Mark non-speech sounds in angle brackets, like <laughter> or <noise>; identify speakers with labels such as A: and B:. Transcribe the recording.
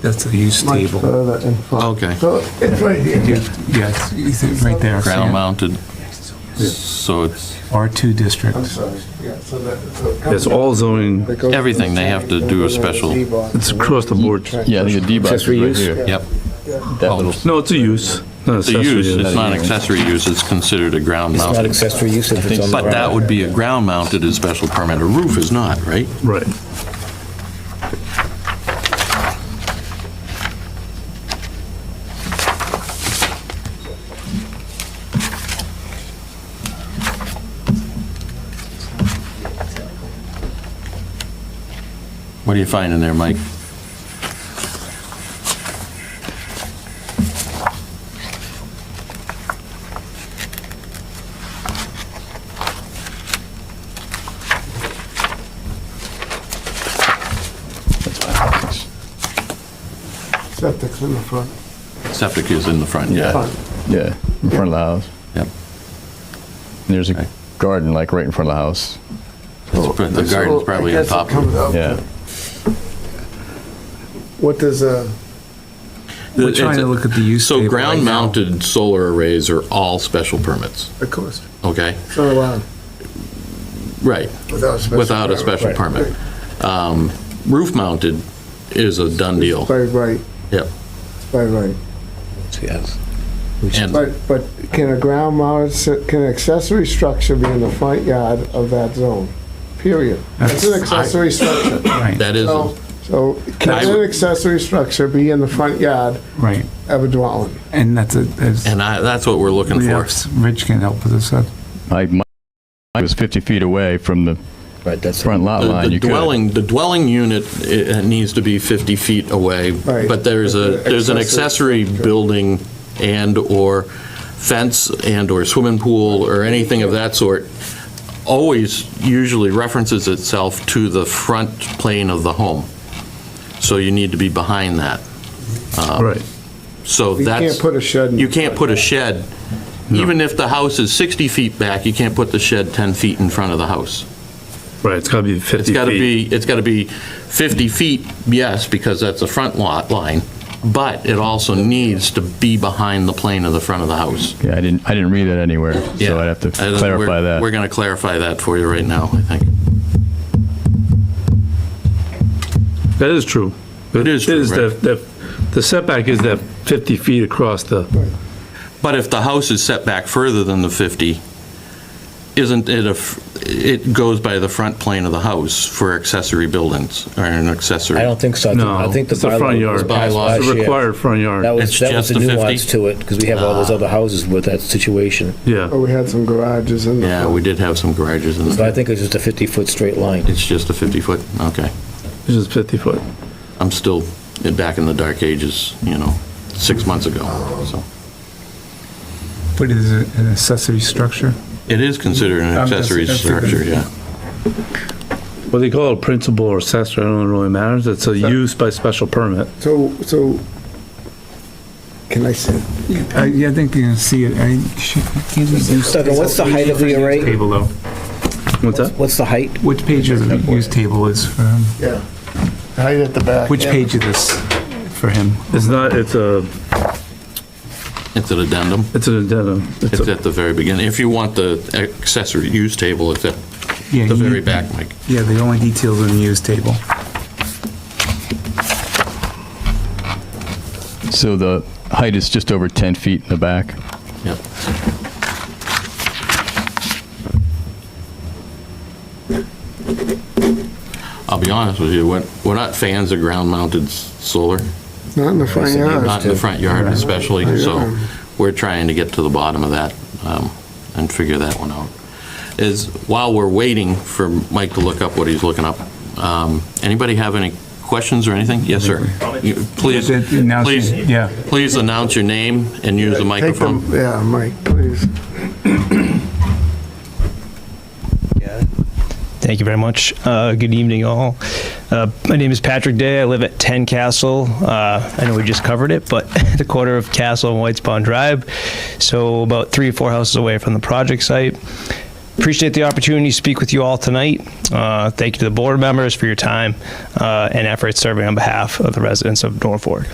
A: That's the use
B: much
C: uh,
A: table.
B: further in front.
D: Okay.
B: uh, So it's right here.
A: Yes, is it right there?
D: Ground
A: Sam?
D: mounted, so it's
A: R2 district.
B: I'm sorry, yeah, so that. so it comes
E: It's all zoning,
B: That goes
D: Everything, they have to
B: inside,
D: do a
B: goes over the
D: special-
B: Z-box.
E: it's across the board.
F: Yeah, I think the D box is
C: Accessory
F: right
C: use?
F: here.
D: Yep.
F: That little,
E: No, it's a use. It's
D: The use, it's not accessory use, it's considered a ground
C: It's not
D: mounted.
C: accessory use if it's on the
D: But that would be a ground mounted is special permit, a roof is not, right?
E: Right.
D: What do you find in there, Mike?
B: Septic's in the front.
D: Septic is in the front, yeah.
B: Front.
F: yeah, in front of the house.
D: Yep.
F: There's
D: Right.
F: a garden like right in front of the house.
D: It's- The
B: So
D: garden's probably
B: I
D: on
B: guess it
D: top of
B: comes up.
F: Yeah.
B: What does, uh,
A: We're trying to look at the use table.
D: So ground
A: right now.
D: mounted solar arrays are all special permits,
B: of course,
D: okay?
B: it's not allowed
D: Right,
B: without a special.
D: without a
B: permit.
D: special permit. Um, Roof mounted is a done deal,
B: By right,
D: yep.
B: by right.
C: Yes.
D: And
B: But, but can a ground mounted, se- can an accessory structure be in the front yard of that zone? Period. It's an accessory structure.
A: Right,
D: that is,
B: So, so can
D: I-
B: an accessory structure be in the front yard
A: right.
B: of a dwelling?
A: And that's a, that's,
D: and I, that's what we're looking
A: we
D: for.
A: have- Rich can help with this. uh,
F: I, my- I was 50 feet away from the
C: Right, that's,
F: front lot
D: The-
F: line.
D: The
F: You could.
D: dwelling, the dwelling unit, it it needs to be 50 feet away,
B: Right.
D: but there's a, there's an accessory building and/or fence and/or swimming pool or anything of that sort, always usually references itself to the front plane of the home. So you need to be behind that.
E: Right.
D: So
B: You
D: that's.
B: can't put a shed in.
D: You can't put a shed, even if the house is 60 feet back, you can't put the shed 10 feet in front of the house.
E: Right, it's gotta be 50 feet.
D: It's got to be, it's got to be 50 feet, yes, because that's a front lot line, but it also needs to be behind the plane of the front of the house.
F: Yeah, I didn't, I didn't read that anywhere,
D: Yeah.
F: so I'd have to
D: I don't- we're-
F: clarify that.
D: We're going to clarify that for you right now, I think.
E: That is true.
D: It is true, right.
E: that- that- The setback is that 50 feet across the,
D: But if the house is set back further than the 50, isn't it a, f- it goes by the front plane of the house for accessory buildings or an accessory?
C: I don't think so. I think-
E: no.
C: I think the
E: It's the front
C: bylaw was
E: yard.
C: passed
D: Bylaw.
E: It's
C: last
E: a
C: year.
E: required front yard.
C: That
D: It's
C: was, that was
D: just Ah.
C: the
D: the 50?
C: nuance to it, because we have all those other houses with that situation.
B: But
E: Yeah,
B: Oh, we had some garages in the
D: Yeah,
B: front.
D: we did have some garages in
C: So I
D: the,
C: think it's just a 50-foot straight line.
D: it's just a 50-foot, okay.
E: it's just 50 foot.
D: I'm still back in the dark ages, you know, six months ago, so.
A: But it is it an accessory structure?
D: It is considered an
A: I'm just-
D: accessory
A: that's a good-
D: structure, yeah.
E: What they call it, principal or accessory, I don't really matters. It's a use by special permit.
B: So, so, can I say,
A: I, yeah, I think you can see it. I should- can't we do-
C: Stucco, what's the height of the array?
A: Table though.
E: What's that?
C: What's the height?
A: Which page of the use table is for him?
B: yeah, height at the back?
A: Which page of this for him?
E: It's not, it's a,
D: It's an addendum.
E: it's an addendum. It's
D: It's
E: a-
D: at the very beginning. If you want the accessory use table, it's at
A: Yeah,
D: the
A: you-
D: very back, Mike.
A: Yeah, the only details in the use table.
F: So the height is just over 10 feet in the back.
D: Yep. I'll be honest with you, we're we're not fans of ground-mounted s- solar,
B: Not in the front yard.
D: not in the front yard especially, so we're trying to get to the bottom of that um, and figure that one out. Is, while we're waiting for Mike to look up what he's looking up, um, anybody have any questions or anything? Yes, sir. You- Please,
A: Now she-
D: please,
A: Yeah.
D: please announce your name and use
B: Take
D: the
B: the-
D: microphone.
B: Yeah, Mike, please.
G: Thank you very much. Uh, good evening, all. Uh, my name is Patrick Day. I live at 10 Castle. Uh, I know we just covered it, but <laughs> the corner of Castle and Whites Pond Drive. So, about three or four houses away from the project site. appreciate the opportunity to speak with you all tonight. Uh, Thank you to the board members for your time uh, and efforts serving on behalf of the residents of Norfolk.